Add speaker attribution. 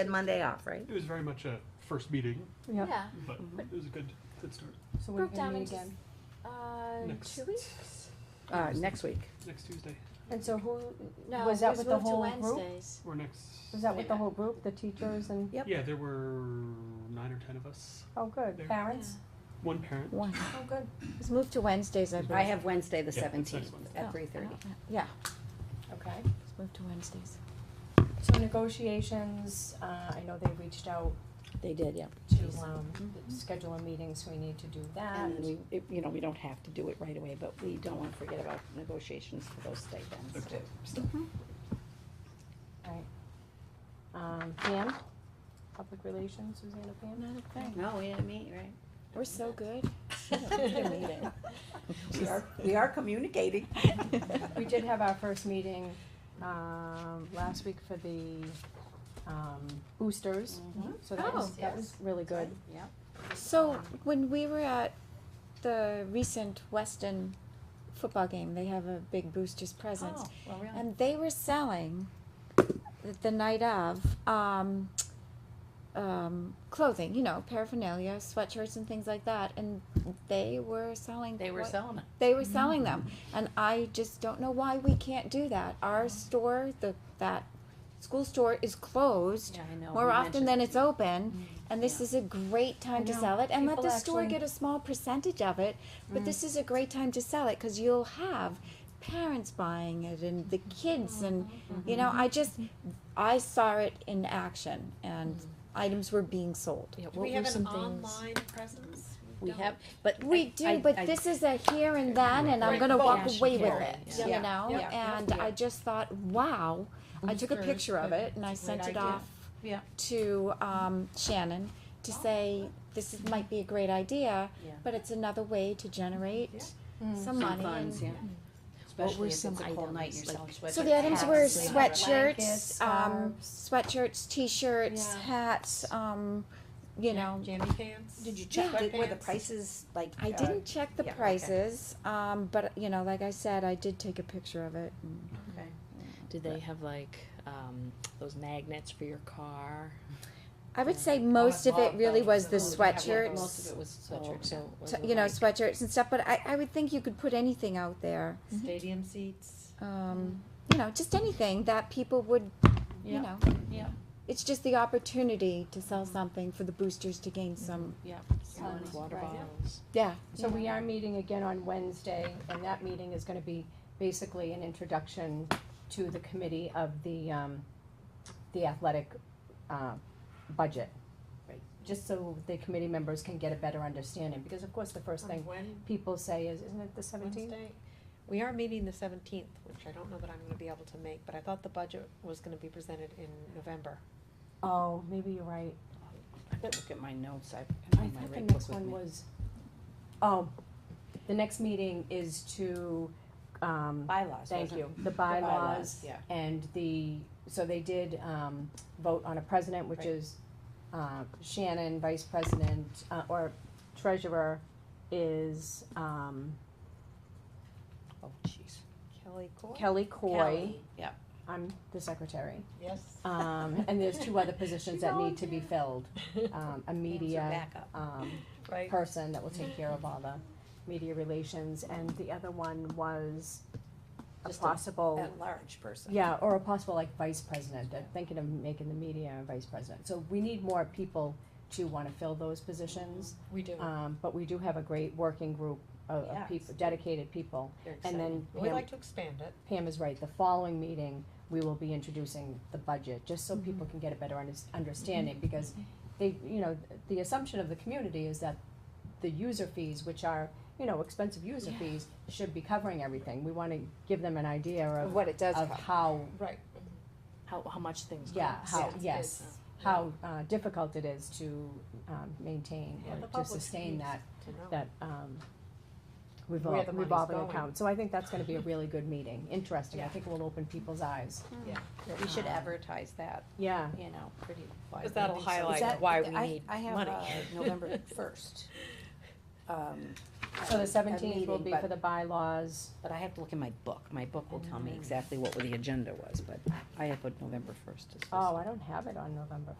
Speaker 1: had Monday off, right?
Speaker 2: It was very much a first meeting,
Speaker 3: Yep.
Speaker 4: Yeah.
Speaker 2: but it was a good, good start.
Speaker 3: So when are
Speaker 4: Broke
Speaker 3: you gonna
Speaker 4: down
Speaker 3: meet
Speaker 4: into
Speaker 3: again?
Speaker 4: uh,
Speaker 2: Next.
Speaker 4: two weeks.
Speaker 1: Uh, next week.
Speaker 2: Next Tuesday,
Speaker 3: And so who,
Speaker 4: No,
Speaker 3: was
Speaker 4: it
Speaker 3: that
Speaker 4: was
Speaker 3: with the
Speaker 4: moved to
Speaker 3: whole group?
Speaker 4: Wednesdays.
Speaker 2: or next.
Speaker 3: Was that with the
Speaker 4: Yeah.
Speaker 3: whole group, the teachers and,
Speaker 1: Yep.
Speaker 2: Yeah, there were nine or ten of us,
Speaker 3: oh, good,
Speaker 2: There.
Speaker 3: parents?
Speaker 2: one parent.
Speaker 5: One.
Speaker 3: Oh, good.
Speaker 5: It was moved to Wednesdays, I
Speaker 1: I
Speaker 5: believe. Oh.
Speaker 1: have Wednesday the
Speaker 2: Yeah, that's next
Speaker 1: seventeenth
Speaker 2: Wednesday.
Speaker 1: at three thirty.
Speaker 5: Yeah,
Speaker 3: Okay.
Speaker 5: it was moved to Wednesdays.
Speaker 3: So negotiations, uh, I know they reached out
Speaker 5: They did, yeah.
Speaker 3: to, um,
Speaker 4: Mm-hmm.
Speaker 5: Mhm.
Speaker 3: schedule a meeting, so we need to do that.
Speaker 1: And then we, it- you know, we don't have to do it right away, but we don't wanna forget about negotiations for those stipends too.
Speaker 2: Okay.
Speaker 1: so.
Speaker 3: Right. Um, Pam, public relations, Susanna Pam?
Speaker 5: Not a thing.
Speaker 1: No, we didn't meet, right?
Speaker 5: We're so good.
Speaker 1: We are, we are communicating.
Speaker 3: We did have our first meeting, um, last week for the, um, boosters, Mm-hmm.
Speaker 1: Mhm.
Speaker 3: so that was,
Speaker 4: Oh.
Speaker 3: that was really good.
Speaker 1: Yep.
Speaker 5: So when we were at the recent Weston football game, they have a big boosters presence.
Speaker 1: Oh, well,
Speaker 5: And they were selling the- the night of um, um, clothing, you know, paraphernalia, sweatshirts and things like that. And they were selling.
Speaker 1: They were Mm-hmm.
Speaker 5: what-
Speaker 1: selling it.
Speaker 5: They were selling them, and I just don't know why we can't do that. Our store, the that school store, is closed
Speaker 1: I know.
Speaker 5: more
Speaker 1: we
Speaker 5: often
Speaker 1: mentioned
Speaker 5: than
Speaker 1: it.
Speaker 5: it's open, and this
Speaker 1: Yeah.
Speaker 5: is a great time
Speaker 3: I
Speaker 5: to
Speaker 3: know.
Speaker 5: sell it. And let
Speaker 3: People
Speaker 5: the store
Speaker 3: actually-
Speaker 5: get a small percentage of it, but this is a great time to sell it because you'll have parents buying it and the kids and you know i just i saw it in action and items were being sold
Speaker 1: Yeah,
Speaker 6: Do
Speaker 1: what
Speaker 6: we
Speaker 1: were
Speaker 6: have an
Speaker 1: some things-
Speaker 6: online presence?
Speaker 1: We
Speaker 6: don't.
Speaker 1: have, but.
Speaker 5: We
Speaker 1: I-
Speaker 5: do,
Speaker 1: I-
Speaker 5: but
Speaker 1: I-
Speaker 5: this is a here and then, and I'm
Speaker 6: Right,
Speaker 5: gonna
Speaker 6: but
Speaker 5: walk
Speaker 1: cash
Speaker 5: away with
Speaker 1: carry,
Speaker 5: it,
Speaker 1: yeah.
Speaker 5: you
Speaker 3: Yeah,
Speaker 5: know?
Speaker 3: yeah, yeah,
Speaker 5: And
Speaker 3: yeah.
Speaker 5: I just thought, wow, I took a
Speaker 6: Boosters,
Speaker 5: picture of
Speaker 6: but
Speaker 5: it and I
Speaker 6: it's a great
Speaker 5: sent it
Speaker 6: idea.
Speaker 5: off
Speaker 1: Yeah.
Speaker 5: to um, Shannon to say, this is, might be a great idea,
Speaker 1: Yeah.
Speaker 5: but it's another way to generate some
Speaker 1: Some
Speaker 5: money.
Speaker 1: funds,
Speaker 5: and-
Speaker 1: yeah.
Speaker 6: What
Speaker 1: Especially
Speaker 6: were
Speaker 1: if it's a
Speaker 6: some
Speaker 1: cold night, you're
Speaker 6: items,
Speaker 1: selling sweatshirts.
Speaker 5: So the items were
Speaker 6: hats,
Speaker 3: blankets,
Speaker 5: sweatshirts, um,
Speaker 3: scarves.
Speaker 5: sweatshirts, t-shirts,
Speaker 6: Yeah.
Speaker 5: hats, um, you know,
Speaker 6: Jammy pants?
Speaker 1: Did you
Speaker 5: check
Speaker 1: check, were the
Speaker 6: sweatpants?
Speaker 1: prices like?
Speaker 5: I
Speaker 1: uh,
Speaker 5: didn't check the
Speaker 1: yeah, okay.
Speaker 5: prices, um, but you know, like I said, I did take a picture of it. and-
Speaker 1: Okay.
Speaker 6: Did they have like, um, those magnets for your car?
Speaker 5: I would say most of it really was
Speaker 1: Oh,
Speaker 5: the
Speaker 1: Most
Speaker 5: sweatshirts,
Speaker 1: of it was
Speaker 6: Sweatshirts,
Speaker 1: sweatshirts,
Speaker 6: yeah.
Speaker 1: so. was
Speaker 5: t-
Speaker 1: it
Speaker 5: you know,
Speaker 1: like
Speaker 5: sweatshirts and stuff. But I, I would think you could put anything out there,
Speaker 1: Stadium seats.
Speaker 5: um, you know, just anything that people would,
Speaker 1: Mm. Yeah.
Speaker 5: you know,
Speaker 1: Yeah. Mm.
Speaker 5: it's just the opportunity to sell something for the boosters to gain
Speaker 1: Mm-hmm.
Speaker 5: some.
Speaker 1: Slimes,
Speaker 6: Water
Speaker 3: right, yeah.
Speaker 6: bottles?
Speaker 5: Yeah,
Speaker 3: So we are meeting again on Wednesday, and that meeting is gonna be basically an introduction to the committee of the, um, the athletic, uh, budget.
Speaker 1: Right.
Speaker 3: Just so the committee members can get a better understanding, because of course, the first thing
Speaker 6: When,
Speaker 3: people say is, isn't it the seventeenth?
Speaker 6: Wednesday? We are meeting the seventeenth, which I don't know that I'm gonna be able to make, but I thought the budget was gonna be presented in November.
Speaker 3: Oh, maybe you're right.
Speaker 1: I have to look at my notes, I,
Speaker 3: I
Speaker 1: I have my
Speaker 3: thought the
Speaker 1: rate book
Speaker 3: next
Speaker 1: with
Speaker 3: one
Speaker 1: me.
Speaker 3: was, oh, the next meeting is to, um,
Speaker 1: Bylaws,
Speaker 3: Thank
Speaker 1: wasn't it?
Speaker 3: you, the
Speaker 1: The
Speaker 3: bylaws
Speaker 1: Yeah.
Speaker 3: and the, so they did, um, vote on a president, which
Speaker 1: Right.
Speaker 3: is, uh, Shannon, vice president, uh, or treasurer is, um,
Speaker 1: Oh, jeez.
Speaker 6: Kelly Court?
Speaker 3: Kelly Coy.
Speaker 1: Kelly, Yep.
Speaker 3: I'm the secretary.
Speaker 6: Yes.
Speaker 3: Um, and there's two other positions
Speaker 6: She's
Speaker 3: that need to be
Speaker 6: volunteering.
Speaker 3: filled, um, a media,
Speaker 6: Backup,
Speaker 3: um,
Speaker 6: right?
Speaker 3: person that will take care of all the media relations, and the other one was a
Speaker 1: Just a-
Speaker 3: possible,
Speaker 1: At-large person.
Speaker 3: yeah, or a possible like vice president, They're thinking of making the media a vice president. So we need more people to wanna fill those positions,
Speaker 6: We do.
Speaker 3: um, but we do have a great working group of, of
Speaker 1: Yes.
Speaker 3: people, dedicated people.
Speaker 1: They're
Speaker 3: And
Speaker 1: excited.
Speaker 3: then
Speaker 6: We'd
Speaker 3: Pam,
Speaker 6: like to expand it.
Speaker 3: Pam is right, the following meeting, we will be introducing the budget, just so people
Speaker 6: Mm-hmm.
Speaker 3: can get a better unders- understanding, because they, you know, the assumption of the community is that the user fees, which are, you know, expensive user fees, should be covering everything. We wanna give them an idea of,
Speaker 5: what it does.
Speaker 3: of how,
Speaker 6: Right.
Speaker 1: How, how much things
Speaker 3: yeah,
Speaker 1: cost.
Speaker 3: how,
Speaker 6: Yes,
Speaker 3: yes,
Speaker 6: yes.
Speaker 3: how, uh, difficult it is to, um, maintain
Speaker 6: um, Yeah, the
Speaker 3: or to
Speaker 6: public should
Speaker 3: sustain
Speaker 6: use
Speaker 3: that,
Speaker 6: to know.
Speaker 3: that, um,
Speaker 6: Where
Speaker 3: revol-
Speaker 6: the money's
Speaker 3: revolving
Speaker 6: going.
Speaker 3: account. So I think that's gonna be a really good meeting, interesting. I think it will open people's eyes.
Speaker 1: We should
Speaker 3: Um,
Speaker 1: advertise that,
Speaker 3: Yeah.
Speaker 1: you know, pretty widely.
Speaker 6: Because that'll
Speaker 1: I think so. Is
Speaker 6: highlight
Speaker 1: that-
Speaker 6: why we
Speaker 1: I-
Speaker 6: need
Speaker 1: I have,
Speaker 6: money.
Speaker 1: uh, November first. Um,
Speaker 3: So
Speaker 1: a- a
Speaker 3: the seventeenth will
Speaker 1: meeting,
Speaker 3: be
Speaker 1: but-
Speaker 3: for the bylaws.
Speaker 1: But I have to look in my book, my book will
Speaker 3: Mm-hmm.
Speaker 1: tell me exactly what the agenda was, but I have put November first as this.
Speaker 3: Oh, I don't have it on November